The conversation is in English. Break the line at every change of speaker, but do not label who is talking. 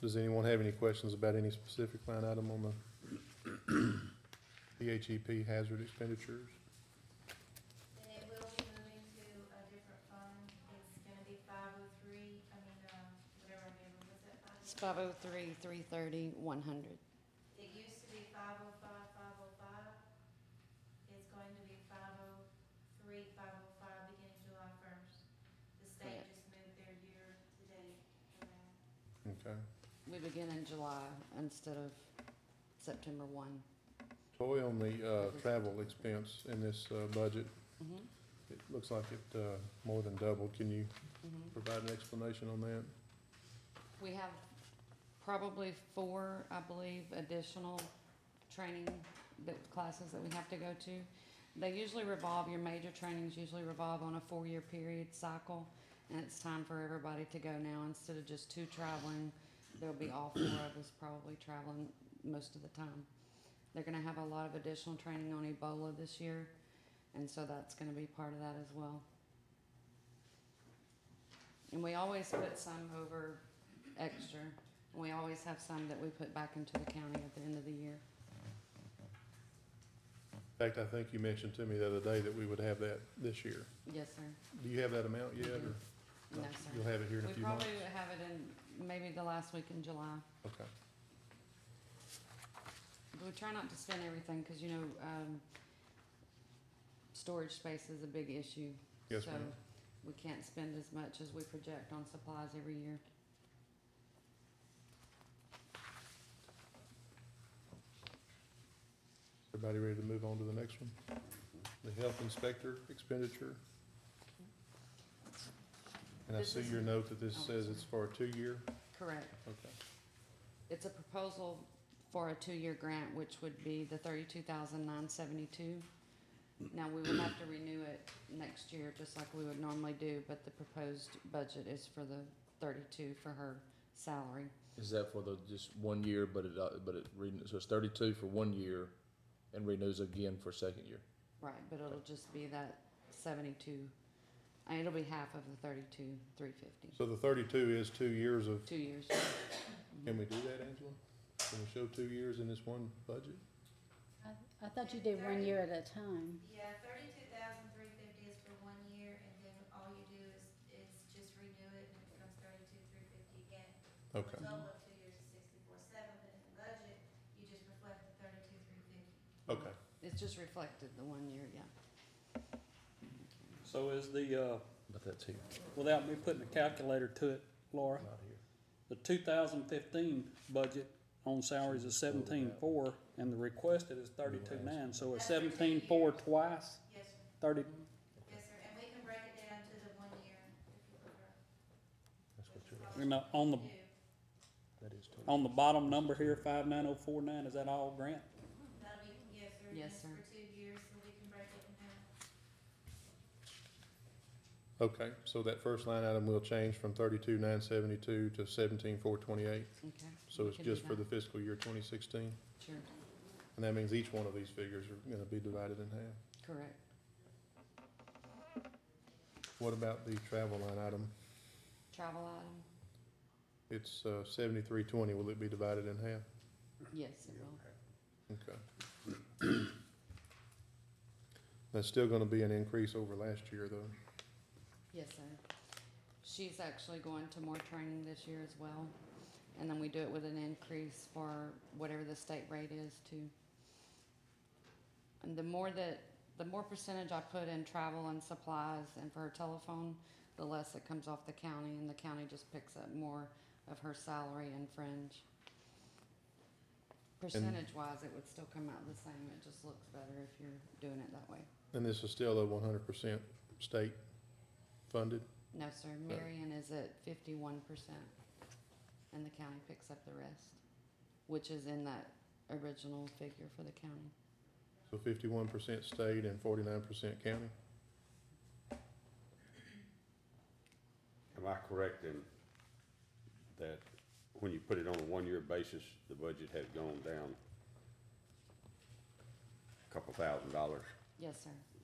Does anyone have any questions about any specific line item on the DHEP hazard expenditures?
And it will be moving to a different fund. It's gonna be five oh three, I mean, um, whatever I remember, was that five?
It's five oh three, three thirty, one hundred.
It used to be five oh five, five oh five. It's going to be five oh three, five oh five, beginning July first. The state
Correct.
just moved their year to date. around.
Okay.
We begin in July instead of September one.
Toy on the, uh, travel expense in this, uh, budget, it looks like it, uh, more than doubled. Can you provide an explanation on that?
We have probably four, I believe, additional training that, classes that we have to go to. They usually revolve, your major trainings usually revolve on a four-year period cycle, and it's time for everybody to go now, instead of just two traveling, there'll be all four of us probably traveling most of the time. They're gonna have a lot of additional training on Ebola this year, and so that's gonna be part of that as well. And we always put some over extra. We always have some that we put back into the county at the end of the year.
In fact, I think you mentioned to me the other day that we would have that this year.
Yes, sir.
Do you have that amount yet, or?
No,
You'll
sir.
have it here in a
We
few months?
probably have it in maybe the last week in July.
Okay.
But We try not to spend everything because, you know, um, storage space is a big issue.
Yes,
So
ma'am.
We can't spend as much as we project on supplies every year.
Everybody ready to move on to the next one? The health inspector expenditure. And I
This
see
is-
your note that this
oh,
says
sorry.
it's for a two-year,
Correct.
okay.
It's a proposal for a two-year grant, which would be the thirty-two thousand nine seventy-two. Now, we would have to renew it next year, just like we would normally do, but the proposed budget is for the thirty-two for her salary.
Is that for the, just one year, but it, uh, but it, renew- so it's thirty-two for one year and renews again for second year?
Right, but it'll just be that seventy-two, and it'll be half of the thirty-two, three fifty,
So the thirty-two is two years of,
two years.
can we do that, Angela? Can we show two years in this one budget?
I, I thought you did one year at a time.
Yeah, thirty-two thousand three fifty is for one year, and then all you do is, is just renew it, and it becomes thirty-two three fifty again.
Okay,
Total of two years is sixty-four seven, but in the budget, you just reflect the thirty-two three fifty.
okay.
It's just reflected the one year, yeah.
So is the, uh,
But that's here,
without me putting a calculator to it, Laura,
not here.
the two thousand fifteen budget on salaries is seventeen-four, and the requested is thirty-two-nine, so it's seventeen-four twice,
Yes, sir.
thirty,
Yes, sir, and we can break it down to the one year if you prefer.
That's what you're,
you know, on the,
That'll
that is total.
Um,
on the bottom number here, five-nine-oh-four-nine, is that all grant?
be, yes, sir.
Yes,
it's
sir.
For two years, so we can break it in half.
Okay, so that first line item will change from thirty-two nine seventy-two to seventeen four twenty-eight,
Okay.
so
we
it's
can do
just for the
that.
fiscal year twenty sixteen?
Sure,
And that means each one of these figures are gonna be divided in half?
correct.
What about the travel line item?
Travel item,
It's uh, seventy-three twenty, will it be divided in half?
yes, it will.
Okay. That's still gonna be an increase over last year, though.
Yes, sir. She's actually going to more training this year as well. And then we do it with an increase for whatever the state rate is too. And the more that, the more percentage I put in travel and supplies and for her telephone, the less it comes off the county and the county just picks up more of her salary and fringe. Percentage wise, it would still come out the same. It just looks better if you're doing it that way.
And this is still a one hundred percent state funded?
No, sir, Marion is at fifty-one percent, and the county picks up the rest, which is in that original figure for the county.
So fifty-one percent state and forty-nine percent county?
Am I correct in that when you put it on a one-year basis, the budget had gone down a couple thousand dollars?
Yes, sir,